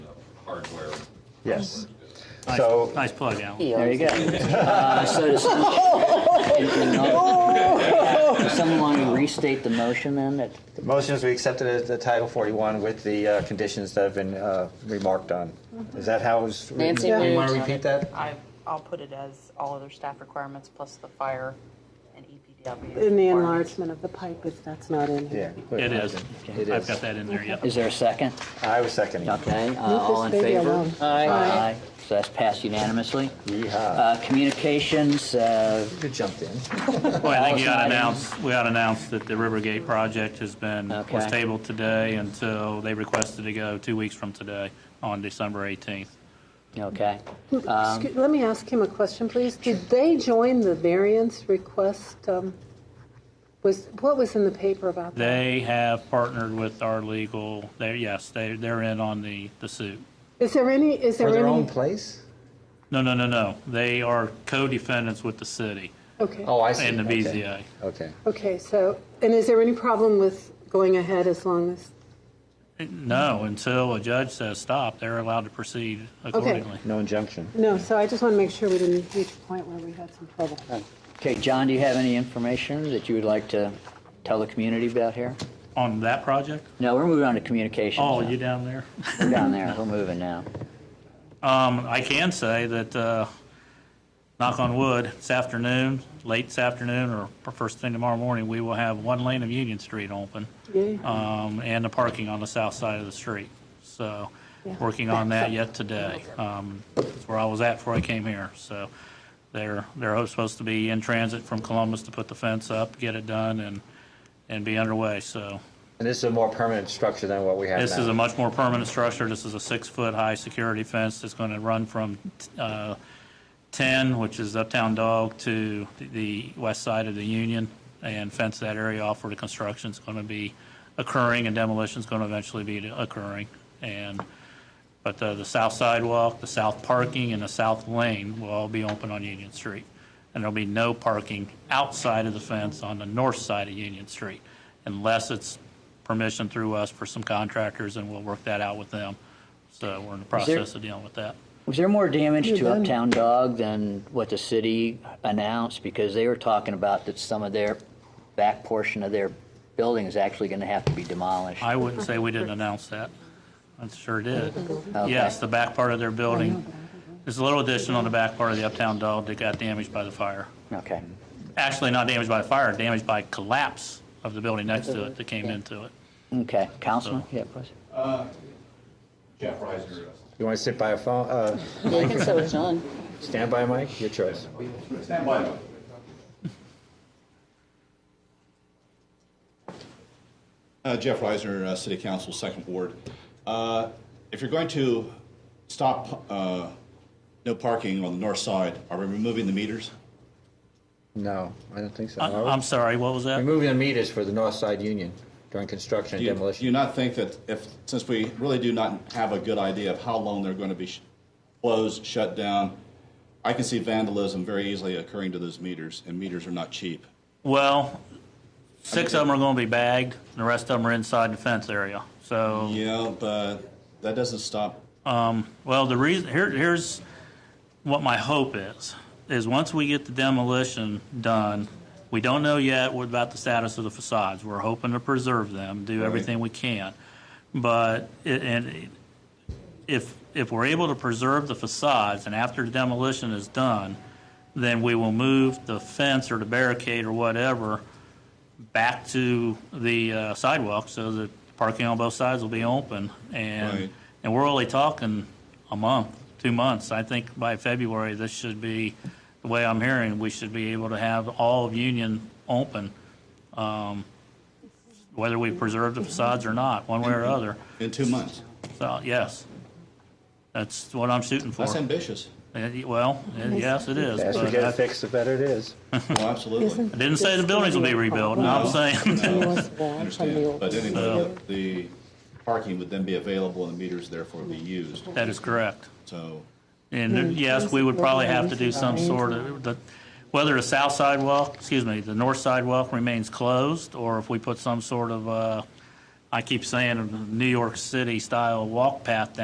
hardware. Yes. Nice- So- Nice plug, Alan. There you go. Uh, So does Does someone want to restate the motion then? That- The motion is we accepted as the Title 41 with the uh, conditions that have been uh, remarked on. Is that how it's written? Nancy Do you want to moved. repeat that? I, I'll put it as all other staff requirements plus the fire and EPW. In the requirements. enlargement of the pipe, if that's not in here. Yeah. put It is. It I've is. got that in there, yep. Is there a second? I was seconding. Okay, uh, Leave all in this baby favor? alone. Aye. Aye. So that's passed unanimously. Yeehaw. Uh, Communications, uh, You jumped in. Well, I think Alice you ought to Knight. announce, we ought to announce that the Rivergate project has been, was Okay. tabled today until they requested to go two weeks from today on December 18th. okay. Um, Excuse- Let me ask him a question, please. Did they join the variance request? um, Was, what was in the paper about that? They have partnered with our legal, they, yes, they, they're in on the, the suit. Is there any, is there For any? their own place? No, no, no, no. They are co-defendants with the city Okay, Oh, I see. and the Okay. BZA. Okay. okay, so, and is there any problem with going ahead as long as? No, until a judge says stop, they're allowed to proceed accordingly. No injunction. No, so I just want to make sure we didn't reach a point where we had some trouble. Okay, John, do you have any information that you would like to tell the community about here? On that project? No, we're moving on to communications. Oh, now. you down there? We're down there, we're moving now. Um, I can say that, uh, knock on wood, this afternoon, late this afternoon or first thing tomorrow morning, we will have one lane of Union Street open. Yay. Um, and the parking on the south side of the street. So, working on that yet today. Um, that's where I was at before I came here. So they're, they're supposed to be in transit from Columbus to put the fence up, get it done and, and be underway. So And this is a more permanent structure than what we have this now. is a much more permanent structure. This is a six-foot-high security fence that's going to run from uh, 10, which is Uptown Dog, to the west side of the Union, and fence that area off where the construction's going to be occurring and demolition's going to eventually be occurring. And, but uh, the south sidewalk, the south parking, and the south lane will all be open on Union Street. And there'll be no parking outside of the fence on the north side of Union Street unless it's permission through us for some contractors, and we'll work that out with them. So we're in the there- process of dealing with that. Was there more damage You're to done. Uptown Dog than what the city announced? Because they were talking about that some of their back portion of their building is actually going to have to be demolished. I wouldn't say we didn't announce that. I sure did. Okay. Yes, the back part of their building, there's a little addition on the back part of the Uptown Dog that got damaged by the fire. Okay, Actually, not damaged by the fire, damaged by collapse of the building next to it that came into it. okay. Councilman? Yeah, please. Jeff Reiser. You want to sit by a phone? Uh, I think so, it's on. stand by, Mike? Your choice. Stand by. Uh, Jeff Reisner, uh, City Council, Second Ward. Uh, If you're going to stop uh, no parking on the north side, are we removing the meters? No, I don't think so. I- Oh, Are we? I'm sorry, what was that? Removing the meters for the North Side Union during construction Do and you- Do you demolition. not think that if, since we really do not have a good idea of how long they're going to be sh- closed, shut down, I can see vandalism very easily occurring to those meters, and meters are not cheap. Well, six of them are going to be bagged, and the rest of them are inside the fence area. So Yeah, but that doesn't stop Well, the reason here, here's what my hope is: is once we get the demolition done, we don't know yet what about the status of the facades. We're hoping to preserve them, do everything we can, but it, and if if we're able to preserve the facades, and after the demolition is done, then we will move the fence or the barricade or whatever back to the uh, sidewalk so that parking on both sides will be open. And Right. and we're only talking a month, two months. I think by February, this should be the way I'm hearing. We should be able to have all of Union open, um, whether we preserve the facades or not, one way or other. in two months. So yes, that's what I'm shooting for. That's ambitious. Uh, Well, uh, yes, it is. As we but get it I- fixed, the better it is. Well, Oh, absolutely. I didn't say the buildings will be rebuilt. No, I'm saying Understand, but anyway, the parking would then be available and the meters therefore be used, that is correct. so. And uh, yes, we would probably have to do some sort of, the- whether the south sidewalk, excuse me, the north sidewalk remains closed, or if we put some sort of, uh, I keep saying, New York City-style walk path down